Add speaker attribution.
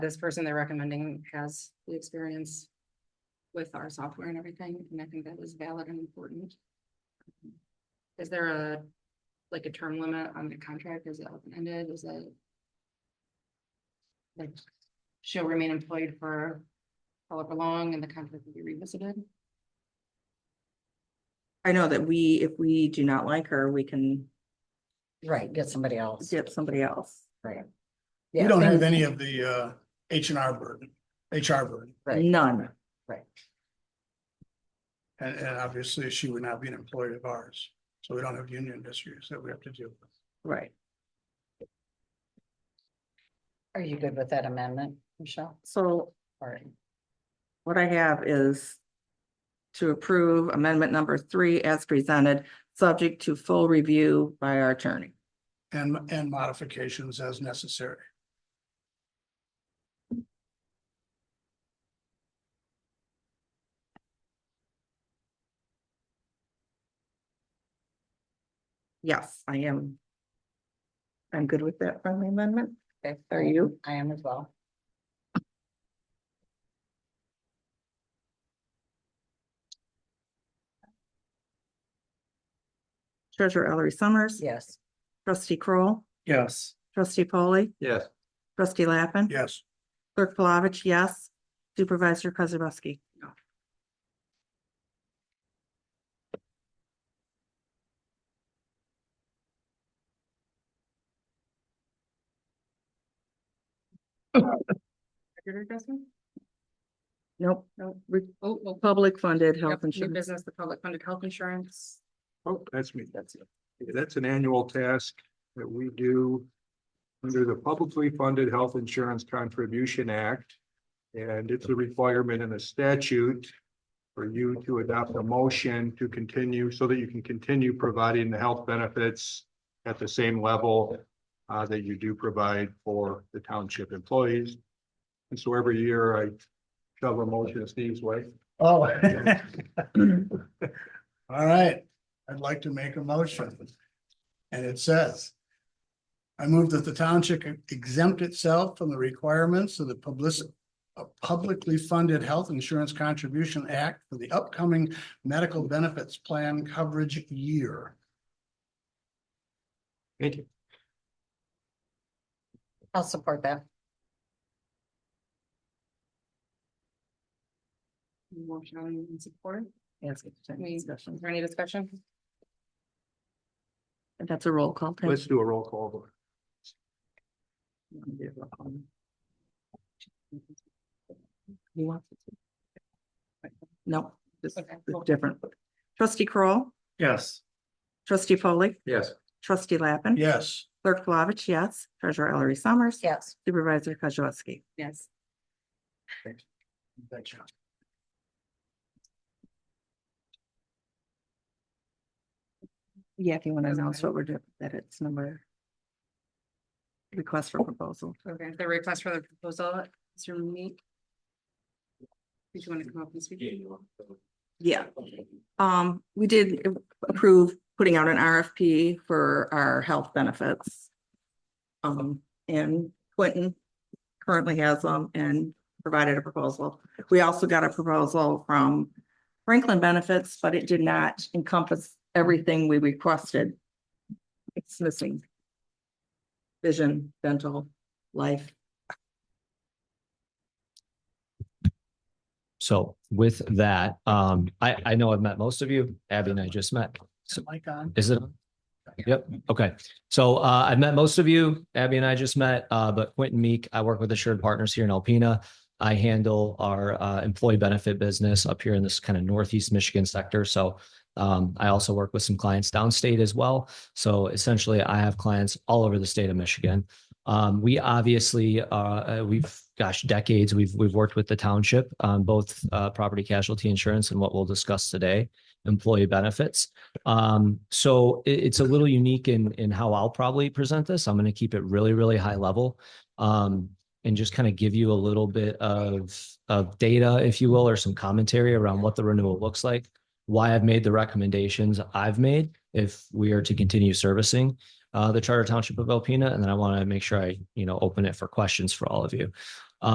Speaker 1: this person they're recommending has the experience with our software and everything, and I think that was valid and important. Is there a, like a term limit on the contract? Is it open-ended? Is it? Like, she'll remain employed for however long and the contract will be revisited?
Speaker 2: I know that we, if we do not like her, we can
Speaker 3: Right, get somebody else.
Speaker 2: get somebody else.
Speaker 4: We
Speaker 3: Yeah,
Speaker 4: don't have
Speaker 3: things-
Speaker 4: any of the uh H and R burden, HR burden,
Speaker 3: Right.
Speaker 2: None.
Speaker 4: and and obviously she would not be an employee of ours. So we don't have union issues that we have to deal with.
Speaker 2: Right.
Speaker 3: Are you good with that amendment, Michelle?
Speaker 2: So
Speaker 3: Or
Speaker 2: what I have is to approve amendment number three as presented, subject to full review by our attorney.
Speaker 4: And and modifications as necessary.
Speaker 2: Yes, I am. I'm good with that friendly amendment.
Speaker 3: Okay.
Speaker 2: Are you?
Speaker 3: I am as well.
Speaker 2: Treasurer Ellery Summers.
Speaker 3: Yes.
Speaker 2: Trustee Kroll,
Speaker 5: Yes.
Speaker 2: Trustee polley
Speaker 5: Yes.
Speaker 2: Trustee Lappin.
Speaker 4: Yes,
Speaker 2: Clerk Palovich, yes. Supervisor Kozibowski.
Speaker 1: Budget adjustment?
Speaker 2: Nope.
Speaker 1: Nope.
Speaker 2: Re-
Speaker 1: Oh, oh,
Speaker 2: Public funded health
Speaker 1: yep, new
Speaker 2: insurance.
Speaker 1: business, the public funded health insurance.
Speaker 5: Oh, that's me. That's it. That's an annual task that we do under the Publicly Funded Health Insurance Contribution Act. And it's a requirement in the statute for you to adopt a motion to continue so that you can continue providing the health benefits at the same level uh, that you do provide for the township employees. And so every year I shove a motion Steve's way.
Speaker 4: oh. All right, I'd like to make a motion. And it says. I move that the township exempt itself from the requirements of the public. A publicly funded Health Insurance Contribution Act for the upcoming medical benefits plan coverage year.
Speaker 5: Thank you.
Speaker 3: I'll support that.
Speaker 1: Motion and support.
Speaker 2: Yes, it's a
Speaker 1: We-
Speaker 2: discussion.
Speaker 1: Is there any discussion?
Speaker 2: And That's a roll call.
Speaker 5: Let's do a roll call vote.
Speaker 2: You want? No, this is
Speaker 1: Okay.
Speaker 2: different. Trustee Kroll,
Speaker 4: Yes.
Speaker 2: trustee polley
Speaker 5: Yes.
Speaker 2: trustee Lappin.
Speaker 4: Yes,
Speaker 2: Clerk Flavich, yes. Treasurer Ellery Summers.
Speaker 3: Yes.
Speaker 2: Supervisor Kozibowski.
Speaker 1: Yes.
Speaker 4: thanks, John.
Speaker 2: Yeah, if you want to
Speaker 1: Okay.
Speaker 2: announce what we're doing, that it's number. Request for proposal.
Speaker 1: Okay, the request for the proposal, is your meet. Did you want to come up and speak?
Speaker 2: Yeah. Um, we did approve putting out an RFP for our health benefits. Um, and Quentin currently has them and provided a proposal. We also got a proposal from Franklin Benefits, but it did not encompass everything we requested. It's missing. Vision, dental, life.
Speaker 6: So with that, um, I, I know I've met most of you. Abby and I just met. So
Speaker 4: Mike on?
Speaker 6: is it? Yep. Okay. So uh, I've met most of you. Abby and I just met, uh, but Quentin Meek, I work with Assured Partners here in Alpena. I handle our uh, employee benefit business up here in this kind of northeast Michigan sector. So um, I also work with some clients downstate as well. So essentially, I have clients all over the state of Michigan. Um, we obviously, uh, uh, we've, gosh, decades, we've, we've worked with the township on both uh, property casualty insurance and what we'll discuss today, employee benefits. Um, so it- it's a little unique in, in how I'll probably present this. I'm going to keep it really, really high level. Um, and just kind of give you a little bit of, of data, if you will, or some commentary around what the renewal looks like. Why I've made the recommendations I've made if we are to continue servicing, uh, the Charter Township of Alpena. And then I want to make sure I, you know, open it for questions for all of you.